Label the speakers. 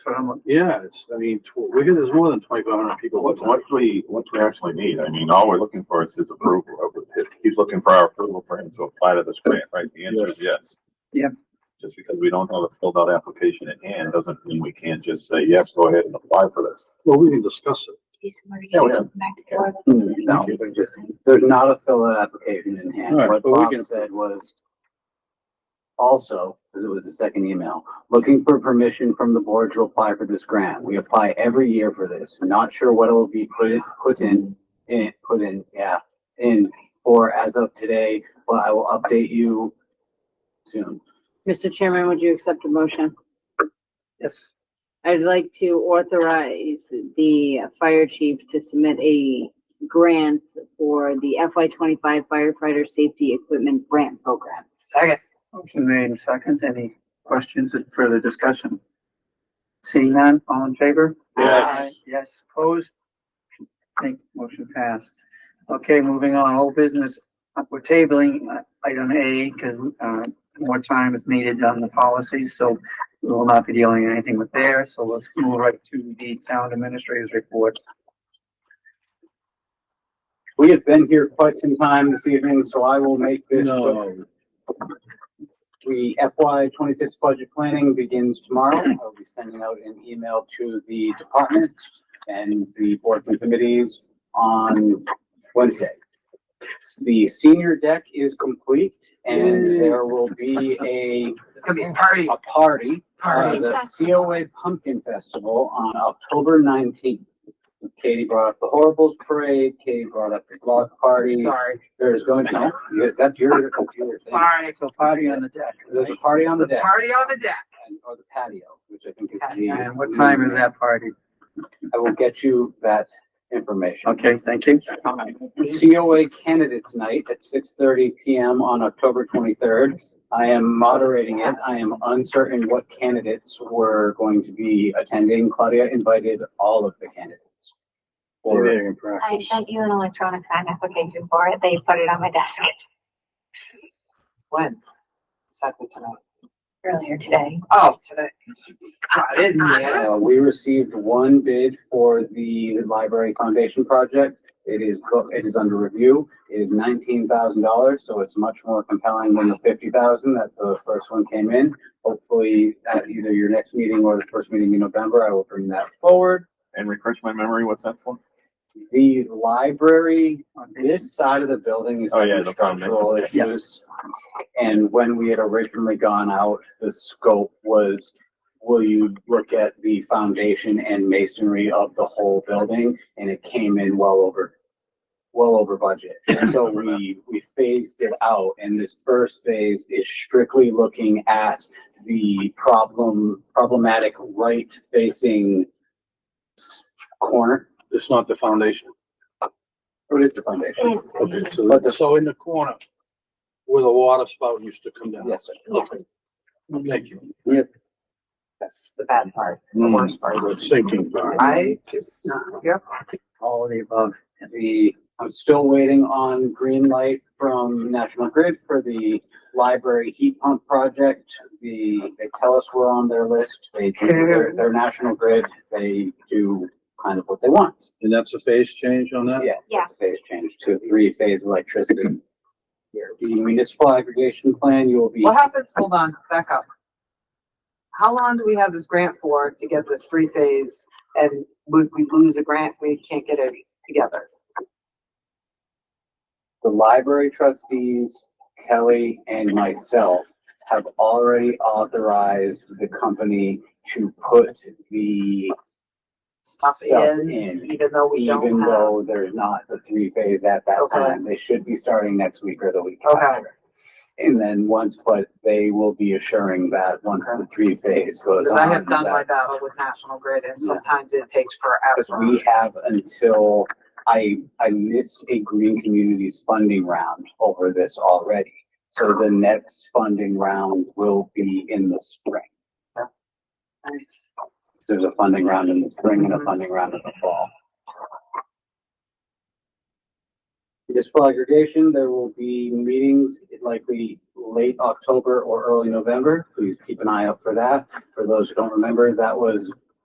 Speaker 1: But I'm, like, yeah, it's, I mean, tw- Wigan, there's more than twenty-five hundred people.
Speaker 2: What, what do we, what do we actually need? I mean, all we're looking for is his approval. He's looking for our approval for him to apply to this grant, right? The answer is yes.
Speaker 3: Yeah.
Speaker 2: Just because we don't have a filled out application at hand doesn't mean we can't just say, yes, go ahead and apply for this.
Speaker 1: Well, we can discuss it.
Speaker 4: He's already
Speaker 2: Yeah, we
Speaker 4: going back to work.
Speaker 3: No, there's not a fill-out application in hand.
Speaker 1: All right,
Speaker 3: What
Speaker 1: but we
Speaker 3: Bob
Speaker 1: can-
Speaker 3: said was also, because it was the second email, looking for permission from the board to apply for this grant. We apply every year for this. Not sure what will be put in, put in, in, put in, yeah, in for as of today, but I will update you soon.
Speaker 5: Mr. Chairman, would you accept a motion?
Speaker 3: Yes.
Speaker 5: I'd like to authorize the fire chief to submit a grant for the FY twenty-five firefighter safety equipment grant program.
Speaker 6: Second. Motion made and second. Any questions or further discussion? Seeing none, all in favor?
Speaker 2: Yes.
Speaker 6: Aye. Yes, opposed? Thank, motion passed. Okay, moving on, old business. Uh, We're tabling uh, item A because, uh, more time is needed on the policies, so we will not be dealing anything with there. So let's move right to the town administrator's report.
Speaker 3: We have been here quite some time this evening, so I will make this quick.
Speaker 1: No,
Speaker 3: The FY twenty-six budget planning begins tomorrow. I'll be sending out an email to the departments and the boards and committees on Wednesday. The senior deck is complete and there will be a,
Speaker 6: It's gonna be a party.
Speaker 3: a party, uh,
Speaker 6: Party.
Speaker 3: the COA Pumpkin Festival on October nineteenth. Katie brought up the Horribles Parade, Katie brought up the block party.
Speaker 6: Sorry.
Speaker 3: There's going to, that's your computer thing.
Speaker 6: Party, so party on the deck.
Speaker 3: There's a party on the deck.
Speaker 6: Party on the deck.
Speaker 3: and- or the patio, which I think is the.
Speaker 6: And what time is that party?
Speaker 3: I will get you that information.
Speaker 6: Okay, thank you.
Speaker 3: COA Candidates Night at six thirty PM on October twenty-third. I am moderating it. I am uncertain what candidates were going to be attending. Claudia invited all of the candidates.
Speaker 1: we're
Speaker 3: Or,
Speaker 1: meeting in practice.
Speaker 4: I sent you an electronic sign application for it. They put it on my desk
Speaker 7: When? Exactly tonight.
Speaker 4: earlier today.
Speaker 7: Oh, today. Ah, I didn't see it.
Speaker 3: uh, we received one bid for the Library Foundation project. It is, go- it is under review. It is nineteen thousand dollars, so it's much more compelling than the fifty thousand that the first one came in. Hopefully, at either your next meeting or the first meeting in November, I will bring that forward.
Speaker 2: And refresh my memory, what's that for?
Speaker 3: The library, this side of the building is
Speaker 2: Oh, yeah,
Speaker 3: having
Speaker 2: the foundation.
Speaker 3: structural
Speaker 6: Yeah.
Speaker 3: issues. And when we had originally gone out, the scope was, will you look at the foundation and masonry of the whole building? And it came in well over, well over budget. So we, we phased it out and this first phase is strictly looking at the problem, problematic right facing s- corner.
Speaker 1: It's not the foundation.
Speaker 3: What is the foundation?
Speaker 4: It is.
Speaker 1: Okay,
Speaker 4: amazing.
Speaker 1: so, so in the corner where the water spout used to come down.
Speaker 3: Yes, sir.
Speaker 4: Yeah.
Speaker 1: Thank you.
Speaker 7: That's the bad part, the
Speaker 1: Mm,
Speaker 7: worst part.
Speaker 1: the Sinking part.
Speaker 7: I just, yeah.
Speaker 6: All of the above.
Speaker 3: The, I'm still waiting on green light from National Grid for the library heat pump project. The, they tell us we're on their list. They, do- they're, they're National Grid. They do kind of what they want.
Speaker 1: And that's a phase change on that?
Speaker 3: Yes,
Speaker 4: Yeah.
Speaker 3: it's a phase change to three phase electricity. The municipal aggregation plan, you will be,
Speaker 7: What happens, hold on, back up. How long do we have this grant for to get this three phase and would we lose a grant if we can't get it together?
Speaker 3: the library trustees, Kelly and myself have already authorized the company to put the
Speaker 7: Stuff
Speaker 3: stuff
Speaker 7: in,
Speaker 3: in.
Speaker 7: even though we
Speaker 3: even
Speaker 7: don't have.
Speaker 3: though there's not the three phase at that
Speaker 7: Okay.
Speaker 3: time. They should be starting next week or the week
Speaker 7: Okay.
Speaker 3: after. And then once, but they will be assuring that once the three phase goes
Speaker 7: Cause
Speaker 3: on.
Speaker 7: I have done my
Speaker 3: that-
Speaker 7: battle with National Grid and
Speaker 3: Yeah.
Speaker 7: sometimes it takes
Speaker 3: Because
Speaker 7: forever.
Speaker 3: we have until, I, I missed a Green Communities funding round over this already. So the next funding round will be in the spring. There's a funding round in the spring and a funding round in the fall. Municipal aggregation, there will be meetings likely late October or early November. Please keep an eye out for that. For those who don't remember, that was